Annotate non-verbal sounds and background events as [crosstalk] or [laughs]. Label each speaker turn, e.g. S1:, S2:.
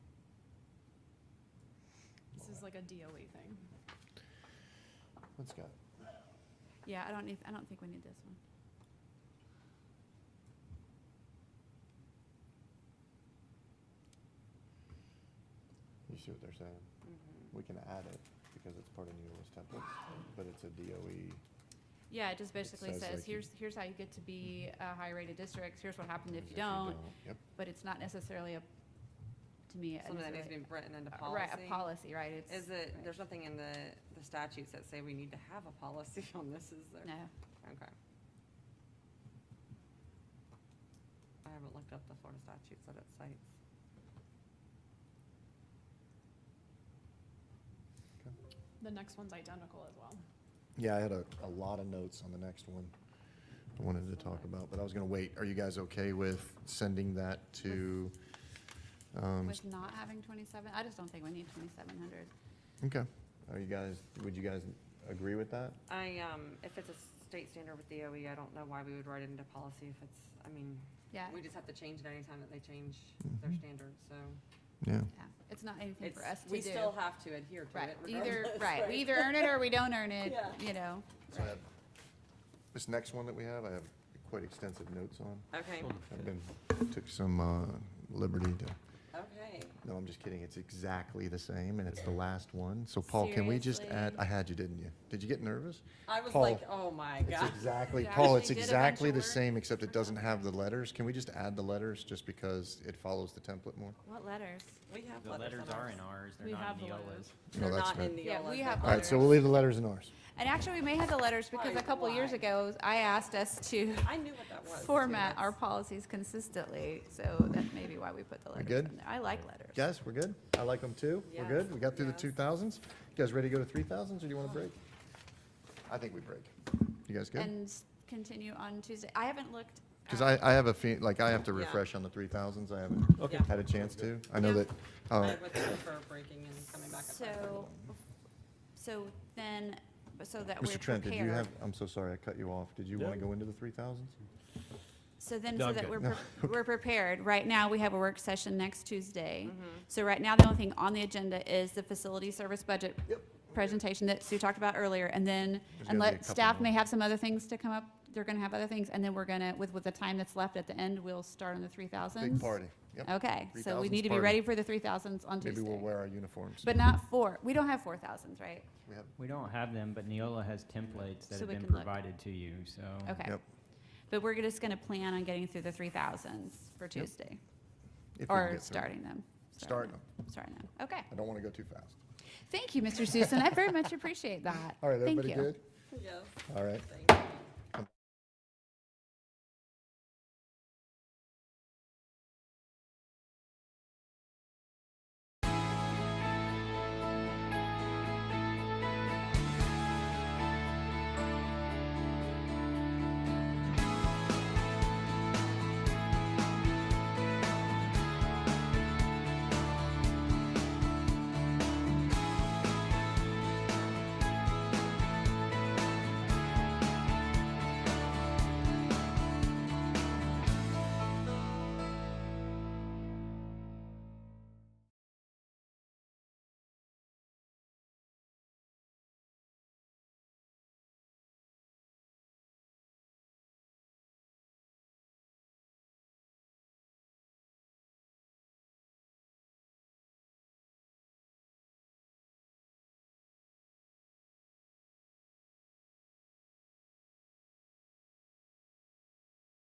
S1: like a DOE thing.
S2: What's got?
S3: Yeah, I don't need, I don't think we need this one.
S2: You see what they're saying?
S3: Mm-hmm.
S2: We can add it because it's part of New List templates, but it's a E. DOE.
S3: Yeah, it just basically
S2: says
S3: says,
S2: like you-
S3: here's, here's how you get to be a high-rated district, here's what happens if
S2: if
S3: you don't,
S2: Yep.
S3: but it's not necessarily a, to me. a
S4: Something that needs to be
S3: necessarily-
S4: written into
S3: uh,
S4: policy.
S3: Right, a policy, right, it's.
S4: Is it,
S3: right.
S4: there's nothing in the, the statutes that say we need to have a policy [laughs] on this, is there?
S3: No,
S4: Okay. I haven't looked up the Florida statutes that it cites.
S1: The next one's identical as well.
S2: Yeah, I had a, a lot of notes on the next one I wanted to talk about, but I was gonna wait. Are you guys okay with sending that to? um,
S3: with not having twenty-seven, I just don't think we need twenty-seven hundred.
S2: Okay. Are you guys, would you guys agree with that?
S4: I, um, if it's a state standard with DOE, I don't know why we would write it into policy if it's, I mean,
S3: Yeah,
S4: we just have to change it anytime that they change their
S2: Mhm.
S4: standards, so.
S2: Yeah.
S3: yeah, it's not anything
S4: It's,
S3: mm-hmm. for us to do.
S4: we still have to adhere to
S3: Right,
S4: it
S3: either,
S4: regardless.
S3: right, we either earn it or we don't earn it,
S4: [laughs] Yeah.
S3: you know.
S2: So I have- This next one that we have, I have quite extensive notes on.
S4: Okay,
S2: I've been, took some uh, liberty to,
S4: okay.
S2: no, I'm just kidding. It's exactly the same and it's the last one. So Paul, can we just add,
S3: Seriously?
S2: I had you, didn't you? Did you get nervous?
S4: I was
S2: Paul,
S4: like, oh my
S2: It's
S4: god.
S2: exactly,
S3: Yeah,
S2: Paul,
S3: [laughs] actually
S2: it's
S3: did a bunch
S2: exactly
S3: of
S2: the
S3: work.
S2: same, except it doesn't have the letters. Can we just add the letters just because it follows the template more?
S3: What letters?
S4: We have
S5: The
S4: letters
S5: letters
S4: on
S5: are
S4: ours.
S5: in ours, they're
S1: We
S5: not
S1: have
S5: in
S1: the
S5: Neola's.
S1: letters.
S2: No,
S4: They're
S2: that's
S4: not
S2: fair.
S4: in the.
S3: Yeah, we have
S2: All right, so we'll leave the letters in ours.
S3: And actually, we may have the letters because a
S4: Why-
S3: couple years
S4: why?
S3: ago, I asked us to
S4: I knew what that was. too,
S3: format our
S4: that's-
S3: policies consistently, so that may be why we put the letters
S2: good?
S3: in there. I like letters.
S2: Guys, we're good? I like them too. We're good?
S4: Yes,
S2: We got through the
S4: yes.
S2: two thousands? You guys ready to go to three thousands or do you want to break? I think we break. You guys good?
S3: And uh, s- continue on Tuesday. I haven't looked.
S2: Because I,
S3: at-
S2: I have a fe, like, I have to
S4: Yeah.
S2: refresh on the three thousands, I haven't
S4: Okay.
S2: had a chance to. I know
S3: Yeah.
S2: that, uh,
S4: I would prefer breaking and coming back at five thirty.
S3: So, so then, so that we're
S2: Mr. Trent, did you
S3: prepared.
S2: have, I'm so sorry, I cut you off. Did you want to go into the three thousands?
S3: So then,
S5: No,
S3: so
S5: I'm
S3: that
S5: good.
S3: we're, pre- we're prepared. Right now, we have a work session next Tuesday.
S2: Mm-hmm.
S3: So right now, the only thing on the agenda is the facility service budget presentation that Sue talked about earlier. And then,
S2: There's gonna be a
S3: and let,
S2: couple
S3: staff
S2: more.
S3: may have some other things to come up. They're gonna have other things. And then we're gonna, with, with the time that's left at the end, we'll start on the three thousands.
S2: Big party, yep.
S3: Okay, so we
S2: 3,000s
S3: need to be
S2: party.
S3: ready for the three thousands on
S2: Maybe we'll
S3: Tuesday.
S2: wear our uniforms.
S3: But not four, we don't have four thousands, right?
S2: We have-
S5: We don't have them, but Neola has templates
S3: So
S5: that have
S3: we
S5: been
S3: can look.
S5: provided to you, so.
S3: Okay.
S2: Mm-hmm. Yep.
S3: But we're just gonna plan on getting through the three thousands for Tuesday,
S2: if we can
S3: or
S2: get through.
S3: starting them.
S2: Starting them.
S3: Starting them, okay.
S2: I don't want to go too fast.
S3: Thank you, Mr. Susan. I very much appreciate that.
S2: All right,
S3: Thank
S2: everybody
S3: you.
S2: good?
S4: Yes.
S2: All right.
S4: Thank